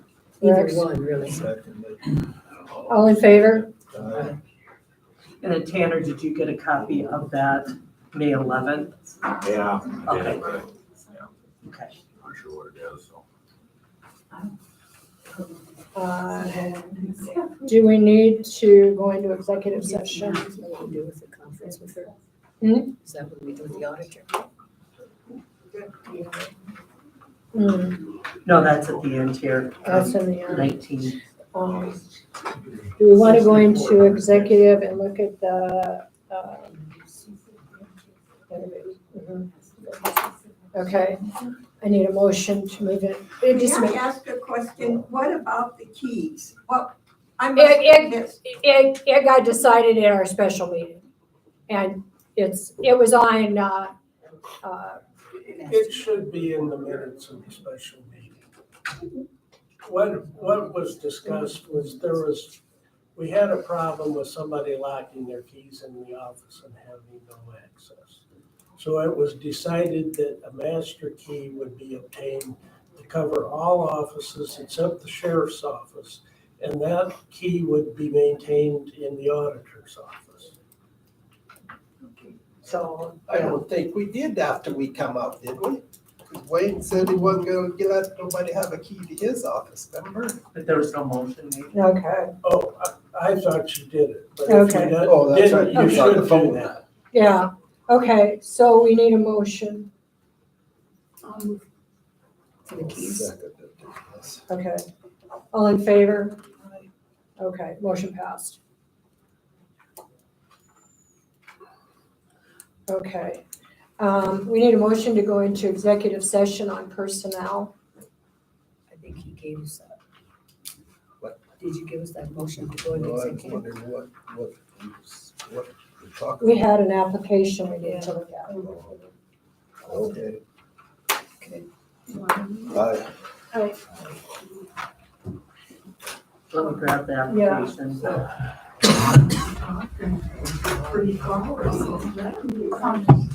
Either Right. one, really. All in favor? And then Tanner, did you get a copy of that May eleventh? Yeah. Okay. Okay. Not sure what it is, so. Uh, Do we need to go into executive session? Is that what we do with the conference with her? Hmm? Is that what we do with the auditor? Hmm, No, that's at the end here, um, That's in the end. nineteen. Um, Do we want to go into executive and look at the? um, mhm. Okay, I need a motion to move it. It May just I ma- ask a question? What about the keys? What, I must It- it- have missed. It, it got decided in our special meeting. And it's, it was on, uh, uh, It should be in the minutes of the special meeting. What, what was discussed was there was, we had a problem with somebody locking their keys in the office and having no access. So it was decided that a master key would be obtained to cover all offices except the sheriff's office. And that key would be maintained in the auditor's office. So, I don't think we did after we come out, did we? 'Cause Wayne said he wasn't gonna get- let nobody have a key to his office, remember? but there was no motion made. okay, Oh, I, I thought you did it, but if you Okay. didn't- Oh, that's right, didn't, you you was on the should do phone. that. yeah, okay, so we need a motion, Um, For the keys? okay. All in favor? Okay, motion passed. Okay, um, we need a motion to go into executive session on personnel. I think he gave us that. What? Did you give us that motion to go into Well, I was executive? wondering what, what, what we're talking. We had an application we needed to look at. about. Okay, Okay. I, Let me grab the Yeah. application. Pretty close.